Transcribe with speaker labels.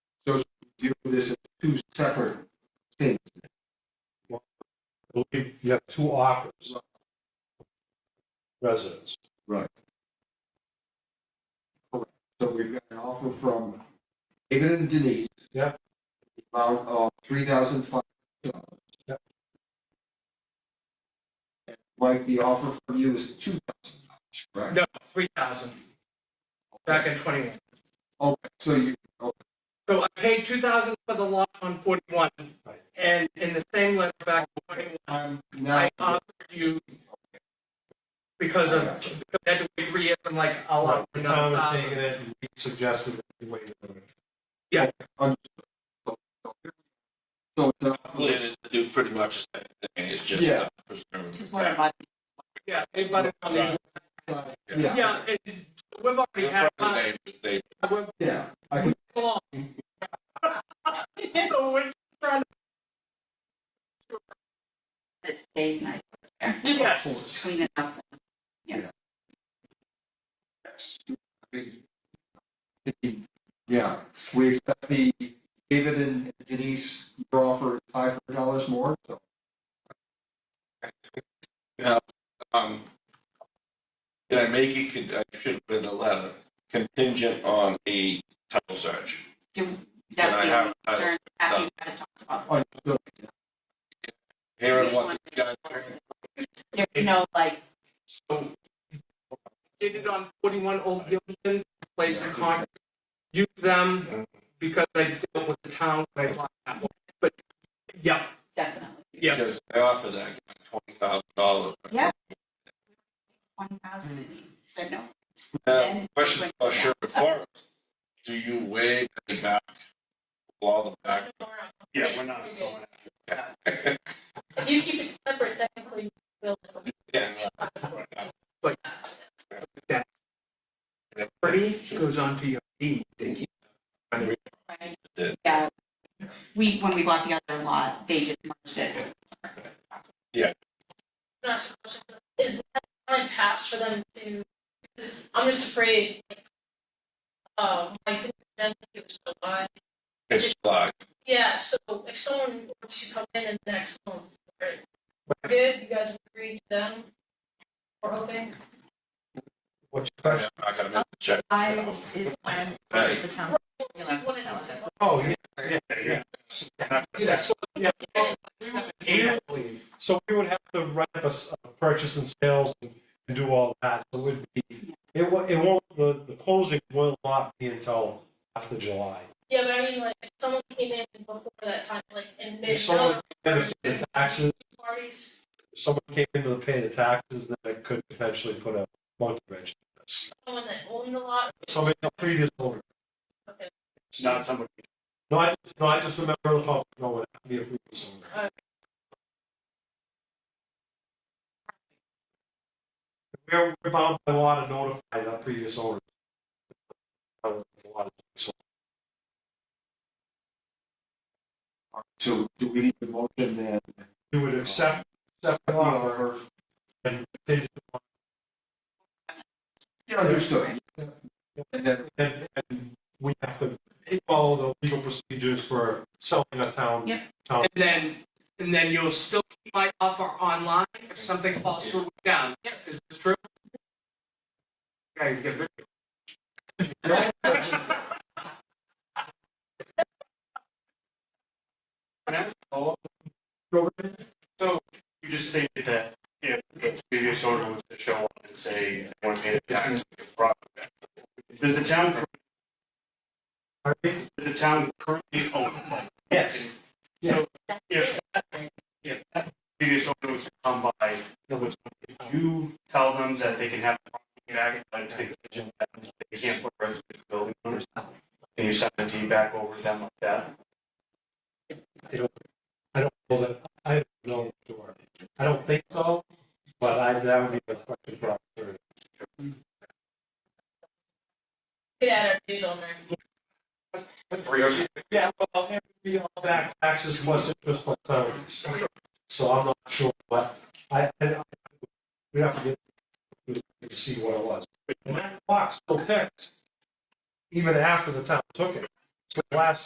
Speaker 1: So should we view this as two separate things.
Speaker 2: I believe you have two offers. Residents,
Speaker 1: So we've got an offer from David and Denise.
Speaker 2: Yep.
Speaker 1: the Amount of three thousand five hundred dollars.
Speaker 2: Yep.
Speaker 1: And Mike, the offer from you is two thousand dollars, right?
Speaker 3: No, three thousand, back in twenty-one.
Speaker 1: Okay, so you,
Speaker 3: So I paid two thousand for the lot on forty-one,
Speaker 2: Right.
Speaker 3: and in the same letter back in twenty-one,
Speaker 1: I'm now,
Speaker 3: I offered you because of, because I had to wait three years, I'm like, I'll offer
Speaker 2: the
Speaker 3: another
Speaker 2: town had
Speaker 3: thousand.
Speaker 2: taken it, and we suggested that you wait a minute.
Speaker 1: so it's not,
Speaker 4: I believe it's to do pretty much the same thing, it's just.
Speaker 1: Yeah.
Speaker 4: uh, preserve the
Speaker 5: What
Speaker 4: fact.
Speaker 5: about
Speaker 3: Yeah, it- but, I mean,
Speaker 1: yeah,
Speaker 3: yeah, it- we've already had, time.
Speaker 4: They- they-
Speaker 3: we're
Speaker 1: yeah, I can,
Speaker 3: along. So we're trying, to-
Speaker 5: it stays nice?
Speaker 3: Mm-hmm.
Speaker 1: of
Speaker 3: yes,
Speaker 1: course.
Speaker 5: Clean it up.
Speaker 1: Yeah, we accept the, David and Denise, your offer is five hundred dollars more, so.
Speaker 4: Um, Can I make it, con- I should put in the letter, contingent on a title search?
Speaker 5: Do,
Speaker 4: Can I
Speaker 5: that's the
Speaker 4: have uh,
Speaker 5: only concern after you had talked about.
Speaker 1: Oh, so-
Speaker 4: Here
Speaker 5: Just
Speaker 4: and what
Speaker 5: wanted
Speaker 4: the
Speaker 5: to
Speaker 4: guy,
Speaker 5: make sure. There's no like,
Speaker 3: did it on forty-one Old Gilman, place in Concord. Use them because I dealt with the town, when I bought that one, but, yeah,
Speaker 5: definitely,
Speaker 3: Yeah.
Speaker 4: because I offered that guy twenty thousand dollars.
Speaker 5: Yeah. one thousand, and he said no.
Speaker 4: Now,
Speaker 5: Then-
Speaker 4: question for Sherman Forest, do you waive the back, all the back?
Speaker 6: Yeah, we're not going If you keep it separate, technically, we'll.
Speaker 4: Yeah.
Speaker 3: pretty goes on to your deed, thank you.
Speaker 5: right?
Speaker 4: Yeah.
Speaker 5: Yeah. We, when we bought the other lot, they just merged it.
Speaker 6: Not so much, is that time pass for them to, because I'm just afraid, like, uh, like, the density was so high.
Speaker 4: It's like,
Speaker 6: Yeah, so if someone were to come in in the next month, right, we're good, you guys agree to them, we're hoping,
Speaker 2: What's your
Speaker 4: I'm
Speaker 2: question?
Speaker 4: not gonna make the check.
Speaker 7: Lives is when
Speaker 4: Right.
Speaker 7: the town.
Speaker 6: it's like one of those.
Speaker 2: Oh, yeah,
Speaker 3: Yeah, so, yeah, eight, I believe.
Speaker 2: so we would have to write up a s- a purchase and sales and and do all that, so it would be, it wa, it won't, the, the closing will not be until after July.
Speaker 6: Yeah, but I mean, like, if someone came in before that time, like, in mid,
Speaker 2: If someone, came in to taxes,
Speaker 6: parties,
Speaker 2: if someone came in to pay the taxes, then it could potentially put a monkey wrench. in this.
Speaker 6: someone that owned the lot,
Speaker 2: Somebody, the previous owner.
Speaker 6: okay,
Speaker 2: Not somebody. Not, not just a member of the public, no, it would be a previous owner.
Speaker 6: uh,
Speaker 2: We're, we're bound by law to notify the previous owner. Uh, the law. So,
Speaker 1: So do we need a motion then?
Speaker 2: You would accept, accept the offer, and they-
Speaker 1: Yeah, understood. And then,
Speaker 2: and, and we have to follow the legal procedures for selling a town.
Speaker 5: Yep.
Speaker 2: Town,
Speaker 3: And then, and then you'll still keep my offer online if something falls through down. Yeah, is this true? Yeah, you get rid of it.
Speaker 8: You just stated that if the previous owner was to show up and say, I want to pay the tax, it's a problem. Does the town, cur-
Speaker 2: Pardon me?
Speaker 8: does the town currently own? Yes. So if, if that previous owner was to come by, would you tell them that they can have the property back, but it's contingent that they can't put a residential building on it? And you send the deed back over to them like that?
Speaker 2: I don't know that, I don't know, for sure. I don't think so, but I, that would be a question for our attorney.
Speaker 6: get out our dues on there.
Speaker 4: Three hundred.
Speaker 2: Yeah, well, it would be all back taxes plus interest plus penalties. So I'm not sure, but I, I, I- we have to get to see what it was. And that clock still ticked, even after the town took it. So the last